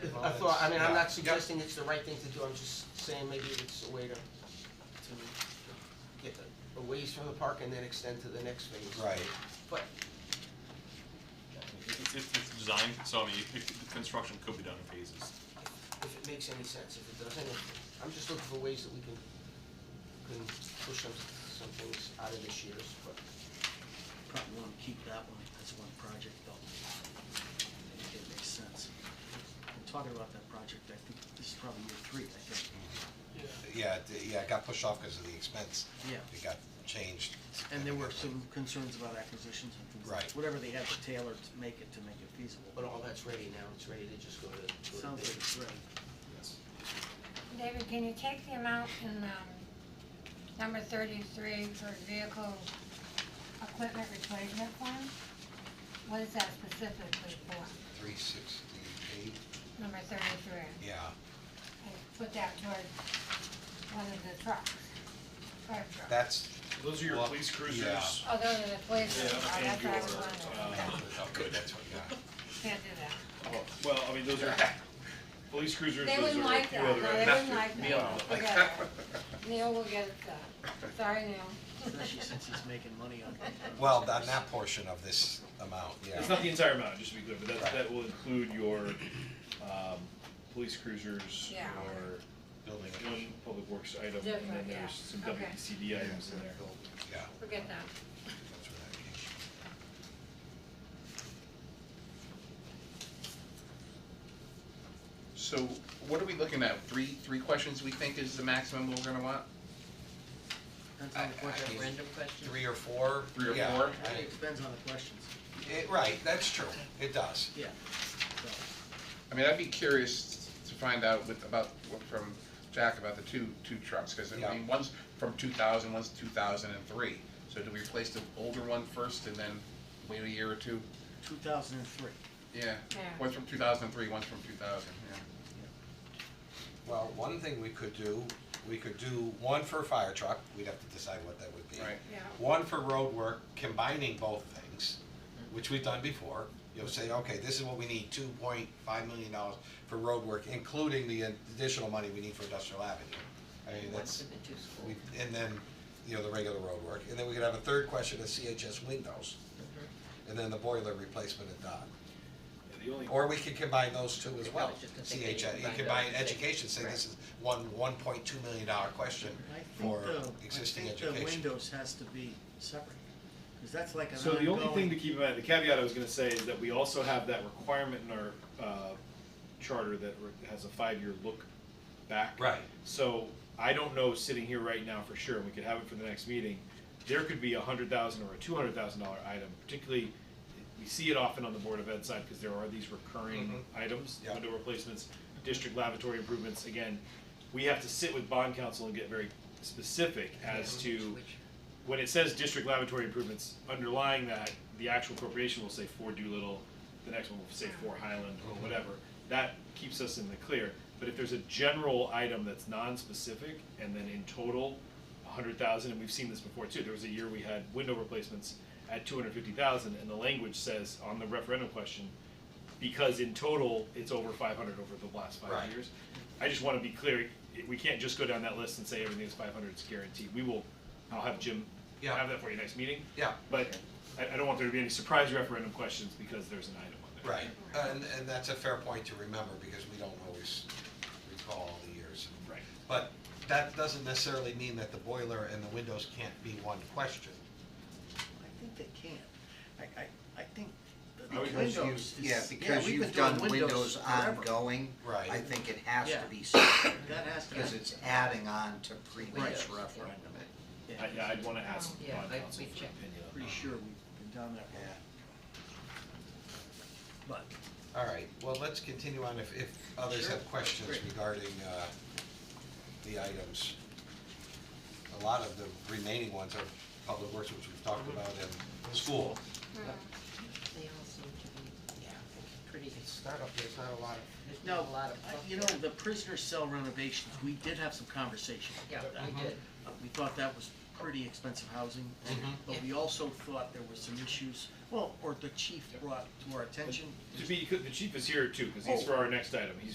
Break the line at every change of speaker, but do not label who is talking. That's all, I mean, I'm not suggesting it's the right thing to do, I'm just saying maybe it's a way to, to get a- a ways from the park and then extend to the next phase.
Right.
But,
It's, it's, it's designed, so I mean, it, the construction could be done in phases.
if it makes any sense, if it doesn't, if- I'm just looking for ways that we can, can push some, some things out of this year's, but.
Probably wanna keep that one, that's one project though. I think it makes sense. We're talking about that project, I think this is probably year three, I think.
Yeah, it- yeah, it got pushed off because of the expense.
Yeah.
It got changed.
And there were some concerns about acquisitions and things like,
Right.
whatever they had to tailor to make it, to make it feasible.
But all that's ready now, it's ready to just go to, go to
Sounds
bid.
like it's ready.
David, can you take the amount in, um, number thirty-three for vehicle equipment replacement fund? What is that specifically for,
Three sixty-eight,
number thirty-three?
yeah,
And put that toward one of the trucks, fire truck.
that's,
Those are your
Well,
police
yeah.
cruisers.
Oh, those are the police,
Yeah,
oh, that's
and
what I was
your,
wondering, okay,
oh, good, that's what, yeah.
can't do that.
Oh, Well, I mean, those are, police cruisers,
They
those
wouldn't
are a
like
few
that, no,
other.
they wouldn't like that,
Neil.
No, forget it. Neil will get it done, sorry Neil.
Especially since he's making money on it.
Well, on that portion of this amount,
It's
yeah,
not the entire amount, just to be clear, but that,
Right.
that will include your, um, police cruisers,
Yeah.
your
building,
one public works item, and
Different,
then
yeah.
there's some
Okay.
WPCD items in there.
yeah,
Forget that.
that's where that came from.
So what are we looking at? Three, three questions we think is the maximum we're gonna want?
Depends on the
I- I
question.
mean,
Random question?
Three or four?
Three or
yeah,
four?
I-
It depends on the questions,
it- right, that's true, it does.
yeah. So,
I mean, I'd be curious to find out with, about, from Jack about the two, two trucks, cause I
Yeah.
mean, one's from two thousand, one's two thousand and three. So do we replace the older one first and then wait a year or two?
two thousand and three.
Yeah,
Yeah.
one's from two thousand and three, one's from two thousand, yeah.
Well, one thing we could do, we could do one for a fire truck, we'd have to decide what that would be.
Right.
Yeah.
One for road work, combining both things, which we've done before. You'll say, okay, this is what we need, two point five million dollars for road work, including the additional money we need for industrial avenue. I mean, that's, we, and then, you know, the regular road work. And then we could have a third question of CHS windows. And then the boiler replacement at Dock.
Yeah, The only,
Or we could combine those two as well.
I was just gonna say, can you
CHS, you
combine
combine
those?
education, say this is one, one point two million dollar question
I think
for
the, I
existing
think the
education.
windows has to be separate, cause that's like an
so the only thing to
ongoing,
keep in mind, the caveat I was gonna say is that we also have that requirement in our, uh, charter that re- has a five-year look back.
Right.
So I don't know, sitting here right now for sure, and we could have it for the next meeting, there could be a hundred thousand or a two hundred thousand dollar item, particularly, we see it often on the Board of Ed side, because there are these recurring items,
Mm-hmm. Yeah.
window replacements, district lavatory improvements, again, we have to sit with bond council and get very specific as to, when it says district lavatory improvements, underlying that, the actual appropriation will say for Doolittle, the next one will say for Highland, or whatever, that keeps us in the clear. But if there's a general item that's non-specific, and then in total, a hundred thousand, and we've seen this before too, there was a year we had window replacements at two hundred fifty thousand, and the language says on the referendum question, because in total, it's over five hundred over the last
Right.
five years. I just wanna be clear, i- we can't just go down that list and say everything's five hundred, it's guaranteed, we will, I'll have Jim
Yeah.
have that for you next meeting.
Yeah.
But I, I don't want there to be any surprise referendum questions because there's an item on there.
Right, and, and that's a fair point to remember, because we don't always recall all the years.
Right.
But that doesn't necessarily mean that the boiler and the windows can't be one question.
I think they can, I, I, I think the
I would
the
just
windows
Oh, Because you,
is,
yeah,
yeah,
because
we've been
you've
doing
done windows
forever.
ongoing,
Right.
I think it has
Yeah.
to be separate,
That has to.
because it's adding on to previous
Windows,
referendum.
Yeah,
I, yeah, I'd wanna ask
Yeah,
bond
I-
counsel
we
for
checked.
opinion. on
Pretty
that.
sure we've been down that road. But,
All right, well, let's continue on if, if others have questions
Great.
regarding, uh, the items. A lot of the remaining ones are public works, which we've talked about in school.
They all seem to
Yeah, I think
pretty,
it's not up there, it's not a lot of,
there's
no, I- you know, the prisoner cell renovations, we did have some conversation about that.
did.
Uh, We thought that was pretty expensive housing,
Mm-hmm.
but we also thought there were some issues, well, or the chief brought to our attention.
To be, the chief is here too, cause he's
Oh.
for our next item, he's